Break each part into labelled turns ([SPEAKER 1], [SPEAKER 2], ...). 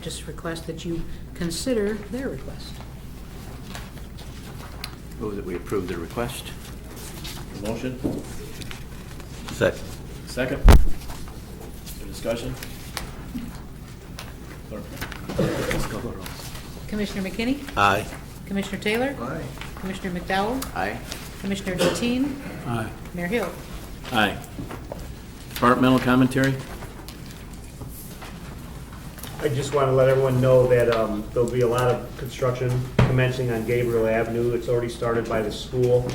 [SPEAKER 1] just request that you consider their request.
[SPEAKER 2] Move that we approve the request.
[SPEAKER 3] Motion,
[SPEAKER 4] Second.
[SPEAKER 3] second. Any discussion? Clerk.
[SPEAKER 1] Commissioner McKinney?
[SPEAKER 4] Aye.
[SPEAKER 1] Commissioner Taylor? Aye. Commissioner McDowell?
[SPEAKER 2] Aye.
[SPEAKER 1] Commissioner Deteen?
[SPEAKER 3] Aye.
[SPEAKER 1] Mayor Hill?
[SPEAKER 3] Aye. Departmental commentary?
[SPEAKER 5] I just want to let everyone know that um, there'll be a lot of construction commencing on Gabriel Avenue. It's already started by the school.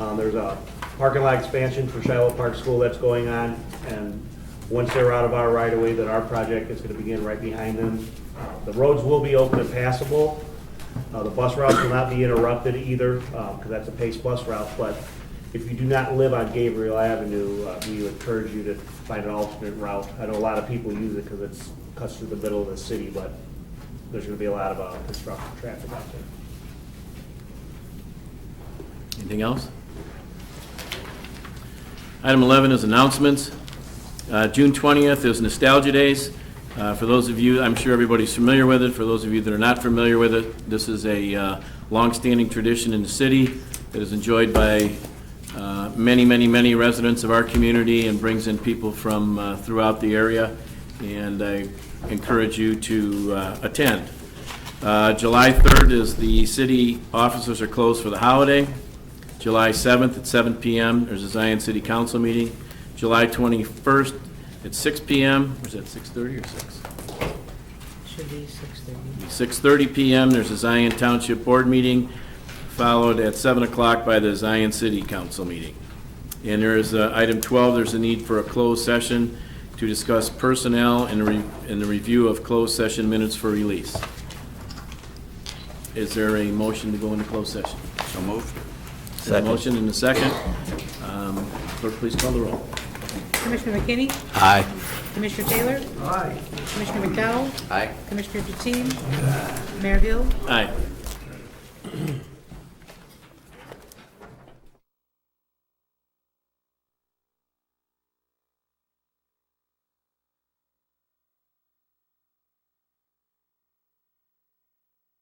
[SPEAKER 5] Um, There's a parking lot expansion for Shiloh Park School that's going on, and once they're out of our right-of-way, then our project is going to begin right behind them. Uh, The roads will be open and passable. Uh, The bus routes will not be interrupted either, because that's a paced bus route, but if you do not live on Gabriel Avenue, uh, we would encourage you to find an alternate route. I know a lot of people use it because it's cuts through the middle of the city, but there's going to be a lot of uh, construction traffic out there.
[SPEAKER 3] Anything else? Item 11 is announcements. Uh, June 20th is Nostalgia Days. Uh, For those of you, I'm sure everybody's familiar with it. For those of you that are not familiar with it, this is a uh, longstanding tradition in the city that is enjoyed by uh, many, many, many residents of our community and brings in people from uh, throughout the area. And I encourage you to uh, attend. Uh, July 3rd is the city offices are closed for the holiday. July 7th at 7 PM, there's a Zion City Council meeting. July 21st at 6 PM, or is that 6:30 or 6?
[SPEAKER 1] Should be 6:30.
[SPEAKER 3] 6:30 PM, there's a Zion Township Board meeting, followed at 7 o'clock by the Zion City Council meeting. And there is, uh, item 12, there's a need for a closed session to discuss personnel and re- and the review of closed session minutes for release. Is there a motion to go into closed session?
[SPEAKER 2] So moved.
[SPEAKER 3] There's a motion and a second. Um, Clerk, please call the roll.
[SPEAKER 1] Commissioner McKinney?
[SPEAKER 4] Aye.
[SPEAKER 1] Commissioner Taylor? Aye. Commissioner McDowell?
[SPEAKER 2] Aye.
[SPEAKER 1] Commissioner Deteen? Mayor Hill?
[SPEAKER 3] Aye.